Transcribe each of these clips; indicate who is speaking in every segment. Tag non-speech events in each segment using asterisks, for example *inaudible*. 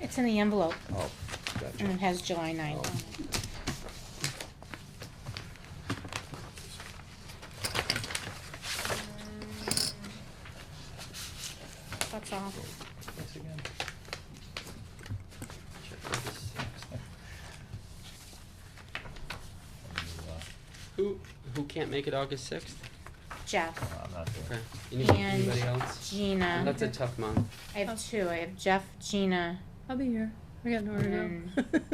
Speaker 1: It's in the envelope,
Speaker 2: Oh,
Speaker 1: and it
Speaker 2: gotcha.
Speaker 1: has July ninth on it. That's all.
Speaker 3: Thanks again. Check for the six. And, uh,
Speaker 4: Who, who can't make it August sixth?
Speaker 1: Jeff,
Speaker 3: I'm not doing
Speaker 4: Okay.
Speaker 3: it.
Speaker 4: Any-
Speaker 1: And-
Speaker 4: Anybody else?
Speaker 1: Gina,
Speaker 4: That's a tough month.
Speaker 1: I have two, I have Jeff, Gina,
Speaker 5: I'll be here. I got nowhere to *laughs* go.
Speaker 1: Mm.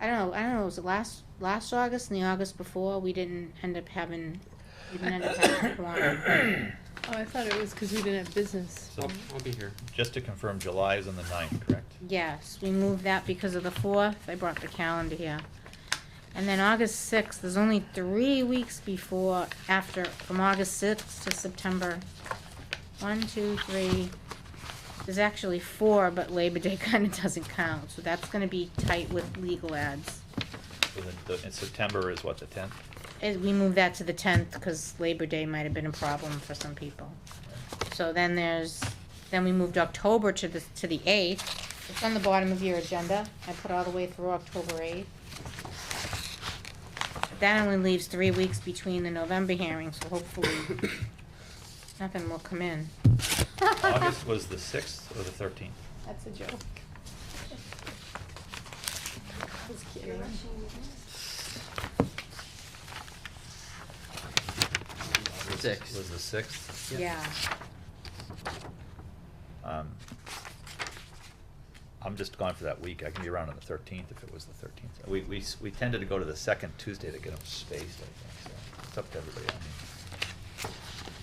Speaker 1: I don't know, I don't know, was it last, last August and the August before, we didn't end up having, we didn't end up having a quorum.
Speaker 3: *clears throat*
Speaker 5: Oh, I thought it was because we didn't have business.
Speaker 4: I'll,
Speaker 3: So,
Speaker 4: I'll be here.
Speaker 3: just to confirm, July is on the ninth, correct?
Speaker 1: Yes, we moved that because of the fourth, I brought the calendar here. And then August sixth, there's only three weeks before, after, from August sixth to September. One, two, three, there's actually four, but Labor Day *laughs* kinda doesn't count, so that's gonna be tight with legal ads.
Speaker 3: So the, the, and September is what, the tenth?
Speaker 1: As we move that to the tenth, cause Labor Day might have been a problem for some people. So then there's, then we moved October to the, to the eighth. It's on the bottom of your agenda. I put all the way through October eighth. That only leaves three weeks between the November hearings,
Speaker 3: *coughs*
Speaker 1: so hopefully nothing will come in.
Speaker 3: August was the sixth or the thirteenth?
Speaker 5: That's a joke. I was kidding.
Speaker 4: Sixth.
Speaker 3: Was the sixth?
Speaker 1: Yeah,
Speaker 3: Um, I'm just gone for that week. I can be around on the thirteenth if it was the thirteenth. We, we, s- we tended to go to the second Tuesday to get them spaced, I think, so it's up to everybody. I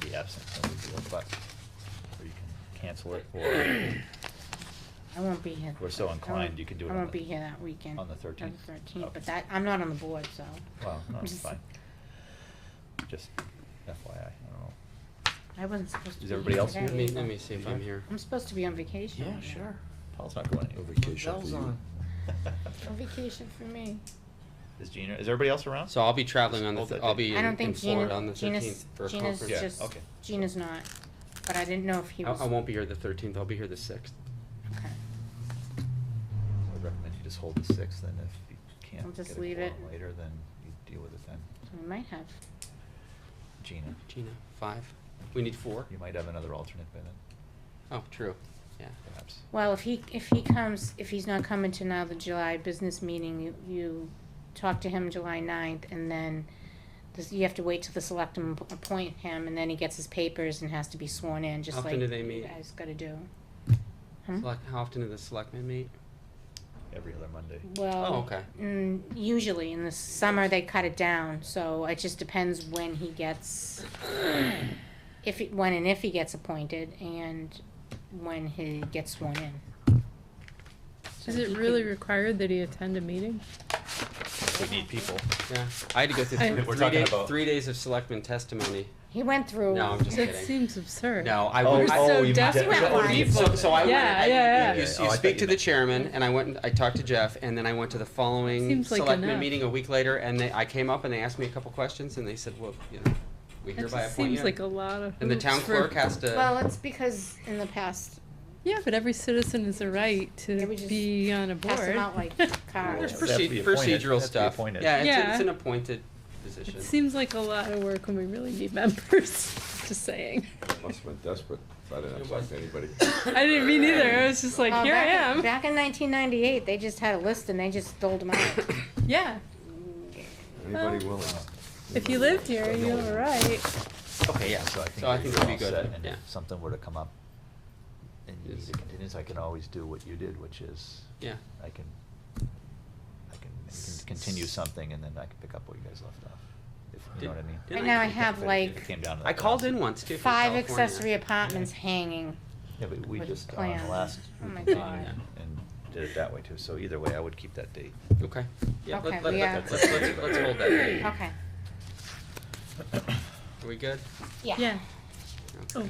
Speaker 3: mean, Be absent, no big deal, but, or you can cancel it, or
Speaker 1: I won't be here.
Speaker 3: We're so
Speaker 1: I won't-
Speaker 3: inclined, you can do it
Speaker 1: I
Speaker 3: on
Speaker 1: won't
Speaker 3: the-
Speaker 1: be here that weekend.
Speaker 3: on the 13th?
Speaker 1: On the thirteenth,
Speaker 3: Okay.
Speaker 1: but that, I'm not on the board, so.
Speaker 3: Well, no, it's
Speaker 1: *laughs* Just-
Speaker 3: fine. Just FYI, I don't know.
Speaker 1: I wasn't supposed to be
Speaker 3: Is
Speaker 1: here
Speaker 3: everybody else
Speaker 1: today
Speaker 3: here?
Speaker 4: Let me,
Speaker 1: either.
Speaker 4: let me see if I'm here.
Speaker 1: I'm supposed to be on vacation.
Speaker 4: Yeah, sure.
Speaker 3: Paul's not going
Speaker 2: No
Speaker 3: anywhere.
Speaker 2: vacation for
Speaker 4: Bells
Speaker 2: you.
Speaker 4: on.
Speaker 1: No vacation for me.
Speaker 3: *laughs* Is Gina, is everybody else around?
Speaker 4: So I'll be traveling on the,
Speaker 3: Hold
Speaker 4: th-
Speaker 3: that
Speaker 4: I'll be
Speaker 1: I
Speaker 4: in,
Speaker 1: don't
Speaker 4: in
Speaker 1: think
Speaker 4: Florida on
Speaker 1: Gina,
Speaker 4: the
Speaker 1: Gina's,
Speaker 4: thirteenth for a
Speaker 1: Gina's
Speaker 3: Yeah,
Speaker 4: conference.
Speaker 1: just,
Speaker 3: okay.
Speaker 1: Gina's not, but I didn't know if he
Speaker 4: I,
Speaker 1: was.
Speaker 4: I won't be here the thirteenth, I'll be here the sixth.
Speaker 1: Okay.
Speaker 3: I would recommend you just hold the sixth, and if you
Speaker 1: I'll
Speaker 3: can't get
Speaker 1: just
Speaker 3: a
Speaker 1: leave
Speaker 3: quorum
Speaker 1: it.
Speaker 3: later, then you deal with it then.
Speaker 1: So We might have,
Speaker 3: Gina,
Speaker 4: Gina, five. We need four?
Speaker 3: you might have another alternate by then,
Speaker 4: Oh, true, yeah.
Speaker 3: perhaps.
Speaker 1: well, if he, if he comes, if he's not coming to now the July business meeting, you, you talk to him July ninth and then this, you have to wait till the selectmen ap- appoint him and then he gets his papers and has to be sworn in, just
Speaker 4: How
Speaker 1: like.
Speaker 4: often do they meet?
Speaker 1: You guys gotta do. Hmm?
Speaker 4: Select, how often do the selectmen meet?
Speaker 3: Every other Monday.
Speaker 1: Well.
Speaker 4: Oh, okay.
Speaker 1: Mm, usually in the summer they cut it down, so it just depends when he gets, if, he- when and if he gets appointed and when he gets sworn in. So
Speaker 5: Is
Speaker 1: he
Speaker 5: it really
Speaker 1: could-
Speaker 5: required that he attend a meeting?
Speaker 3: We need people.
Speaker 4: Yeah, I had to go
Speaker 1: *laughs*
Speaker 4: through
Speaker 5: I-
Speaker 4: three,
Speaker 3: We're
Speaker 4: three
Speaker 3: talking
Speaker 4: day-
Speaker 3: about-
Speaker 4: three days of selectmen testimony.
Speaker 1: He went through.
Speaker 4: No, I'm just
Speaker 5: That
Speaker 4: kidding.
Speaker 5: seems absurd.
Speaker 4: No, I
Speaker 3: Oh,
Speaker 4: would.
Speaker 5: You're
Speaker 4: I-
Speaker 5: so
Speaker 3: oh, you mean
Speaker 5: desperate.
Speaker 1: Jeff- Jeff-
Speaker 5: for
Speaker 1: Jeff-
Speaker 5: people.
Speaker 4: So, so I went.
Speaker 5: Yeah,
Speaker 4: I-
Speaker 5: yeah,
Speaker 4: You,
Speaker 3: yeah.
Speaker 4: you
Speaker 3: Oh, I thought
Speaker 4: speak
Speaker 3: you
Speaker 4: to the
Speaker 3: meant-
Speaker 4: chairman, and I went. I talked to Jeff, and then I went to the following
Speaker 5: Seems like
Speaker 4: selectman
Speaker 5: enough.
Speaker 4: meeting a week later, and they, I came up and they asked me a couple questions, and they said, "Well, you know, we
Speaker 5: That
Speaker 4: hereby
Speaker 5: just
Speaker 4: appoint
Speaker 5: seems
Speaker 4: you."
Speaker 5: like a lot of.
Speaker 4: and the
Speaker 5: hoops
Speaker 4: town
Speaker 5: for-
Speaker 4: clerk has to.
Speaker 1: Well, it's because in the past,
Speaker 5: Yeah, but every citizen has a right
Speaker 1: Yeah,
Speaker 5: to
Speaker 1: we just
Speaker 5: be on a board.
Speaker 1: pass him out
Speaker 5: *laughs*
Speaker 1: like
Speaker 4: there's
Speaker 1: cards.
Speaker 3: They have to be
Speaker 4: proce-
Speaker 3: appointed. They
Speaker 4: procedural
Speaker 3: have to be
Speaker 4: stuff.
Speaker 3: appointed.
Speaker 4: Yeah, it's, A,
Speaker 5: Yeah.
Speaker 4: it's an appointed position.
Speaker 5: It seems like a lot of work when we really need members, *laughs* just saying.
Speaker 2: Must've been desperate, I didn't have to talk to anybody.
Speaker 5: I didn't mean either, I was just like,
Speaker 1: Uh,
Speaker 5: here I
Speaker 1: back in-
Speaker 5: am.
Speaker 1: Back in nineteen ninety-eight, they just had a list and they just doled them out.
Speaker 5: Yeah,
Speaker 2: Anybody willing?
Speaker 5: if you lived here, you have a right.
Speaker 3: Okay, yeah, so I think.
Speaker 4: So I
Speaker 3: that
Speaker 4: think
Speaker 3: you're
Speaker 4: we'll be
Speaker 3: all
Speaker 4: good,
Speaker 3: set, And
Speaker 4: yeah.
Speaker 3: if something were to come up and you
Speaker 4: Yes.
Speaker 3: need a continuance, I can always do what you did, which is,
Speaker 4: yeah.
Speaker 3: I can, I can, I can continue something and then I can pick up where you guys left off, if, you know what
Speaker 4: Did-
Speaker 3: I mean?
Speaker 4: did
Speaker 1: Right now I
Speaker 3: If it-
Speaker 1: have
Speaker 3: if it
Speaker 1: like
Speaker 3: came down to
Speaker 4: I
Speaker 3: that
Speaker 4: called in
Speaker 3: last-
Speaker 4: once too. from
Speaker 1: five
Speaker 4: California.
Speaker 1: accessory apartments hanging.
Speaker 3: Yeah, but we
Speaker 1: with
Speaker 3: just, uh, on the
Speaker 1: plans.
Speaker 3: last,
Speaker 1: Oh
Speaker 3: we
Speaker 1: my
Speaker 3: continued
Speaker 5: God.
Speaker 3: and did it that way too, so either way, I would keep that date.
Speaker 4: Okay. Yeah.
Speaker 1: Okay,
Speaker 4: let, let,
Speaker 1: we
Speaker 4: let,
Speaker 1: are-
Speaker 4: us let's, let's hold that. date. Are
Speaker 1: Okay,
Speaker 4: we good?
Speaker 1: yeah.
Speaker 5: Yeah,
Speaker 4: Okay.
Speaker 5: oh,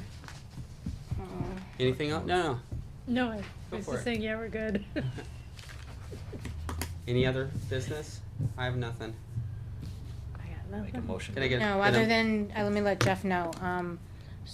Speaker 1: Mm.
Speaker 4: Anything else? No, no.
Speaker 5: no, I
Speaker 4: Go
Speaker 5: was
Speaker 4: for it.
Speaker 5: just saying, yeah, we're good. *laughs*
Speaker 4: Any other business? I have nothing.
Speaker 5: I got
Speaker 3: Make a
Speaker 5: nothing.
Speaker 3: motion.
Speaker 4: Can I get-
Speaker 1: No,
Speaker 4: Then
Speaker 1: other
Speaker 4: I'm-
Speaker 1: than, uh, let me let Jeff know, um,